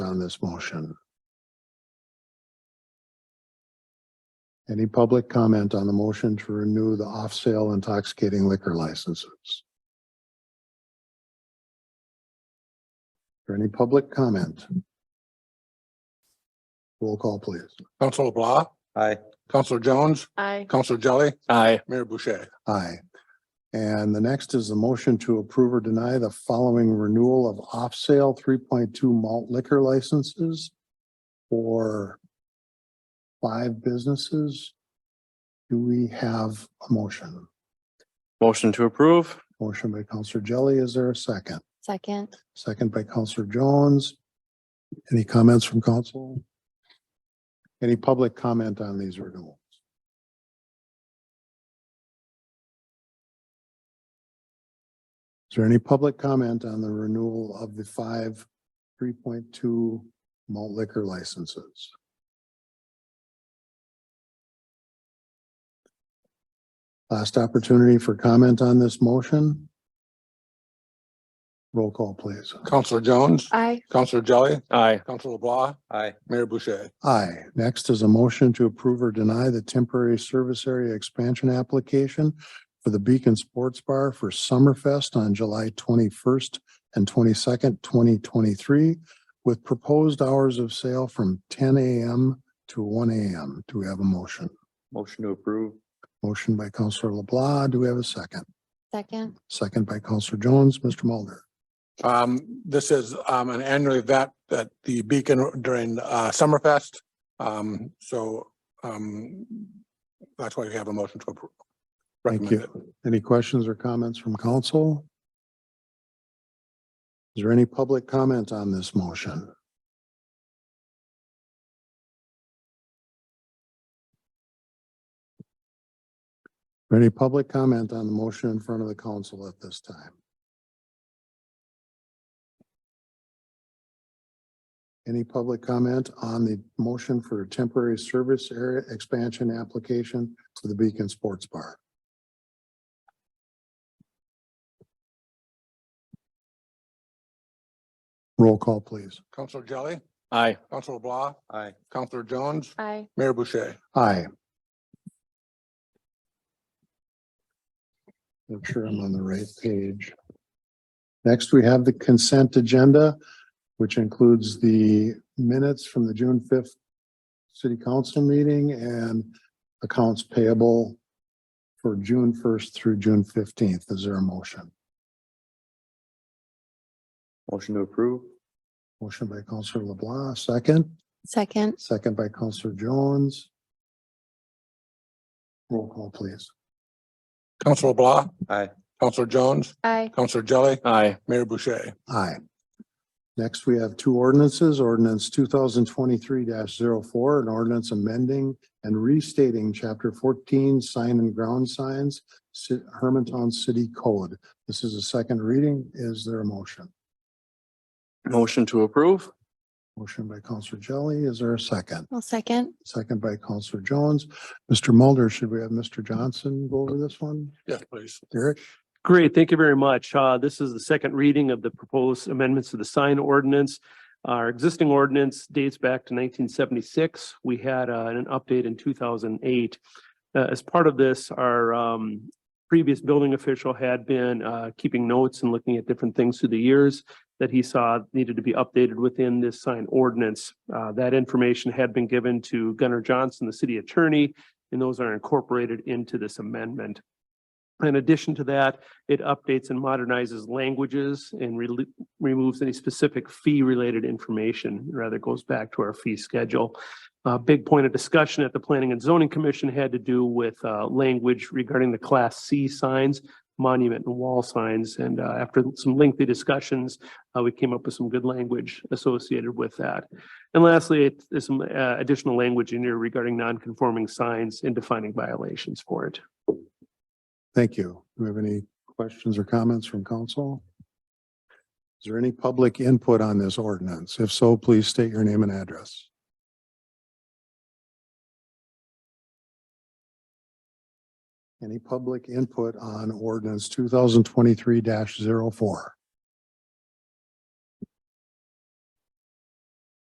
this motion? Any public comment on the motion to renew the off-sale intoxicating liquor licenses? Or any public comment? Roll call, please. Counselor LeBlanc, Aye. Counselor Jones, Aye. Counselor Jelly, Aye. Mayor Boucher. Aye. And the next is the motion to approve or deny the following renewal of off-sale three point two malt liquor licenses for five businesses. Do we have a motion? Motion to approve. Motion by Counselor Jelly, is there a second? Second. Second by Counselor Jones. Any comments from council? Any public comment on these renewals? Is there any public comment on the renewal of the five three point two malt liquor licenses? Last opportunity for comment on this motion. Roll call, please. Counselor Jones, Aye. Counselor Jelly, Aye. Counselor LeBlanc, Aye. Mayor Boucher. Aye. Next is a motion to approve or deny the temporary service area expansion application for the Beacon Sports Bar for Summerfest on July twenty-first and twenty-second, twenty twenty-three, with proposed hours of sale from ten AM to one AM. Do we have a motion? Motion to approve. Motion by Counselor LeBlanc. Do we have a second? Second. Second by Counselor Jones. Mr. Mulder. Um, this is, um, an annual event at the Beacon during, uh, Summerfest. Um, so, um, that's why we have a motion to approve. Thank Recommend it. you. Any questions or comments from council? Is there any public comment on this motion? Any public comment on the motion in front of the council at this time? Any public comment on the motion for temporary service area expansion application to the Beacon Sports Bar? Roll call, please. Counselor Jelly, Aye. Counselor LeBlanc, Aye. Counselor Jones, Aye. Mayor Boucher. Aye. Make sure I'm on the right page. Next, we have the consent agenda, which includes the minutes from the June fifth city council meeting and accounts payable for June first through June fifteenth. Is there a motion? Motion to approve. Motion by Counselor LeBlanc, second. Second. Second by Counselor Jones. Roll call, please. Counselor LeBlanc. Aye. Counselor Jones, Aye. Counselor Jelly, Aye. Mayor Boucher. Aye. Next, we have two ordinances, ordinance two thousand twenty-three 4 an ordinance amending and restating chapter fourteen, sign and ground signs, Ci- Hermantown City Code. This is a second reading. Is there a motion? Motion to approve. Motion by Counselor Jelly. Is there a second? I'll second. Second by Counselor Jones. Mr. Mulder, should we have Mr. Johnson go over this one? Yes, please. Derek? Great, thank you very much. Uh, this is the second reading of the proposed amendments to the sign ordinance. Our existing ordinance dates back to nineteen seventy-six. We had uh, an update in two thousand eight. Uh, as part of this, our um, previous building official had been uh, keeping notes and looking at different things through the years that he saw needed to be updated within this sign ordinance. Uh, that information had been given to Gunnar Johnson, the city attorney, and those are incorporated into this amendment. In addition to that, it updates and modernizes languages and rel- removes any specific fee-related information, rather goes back to our fee schedule. A big point of discussion at the Planning and Zoning Commission had to do with uh, language regarding the Class C signs, monument and wall signs, and uh, after some lengthy discussions, uh, we came up with some good language associated with that. And lastly, it- there's some uh, additional language in here regarding non-conforming signs and defining violations for it. Thank you. Do we have any questions or comments from council? Is there any public input on this ordinance? If so, please state your name and address. Any public input on ordinance two thousand twenty-three 4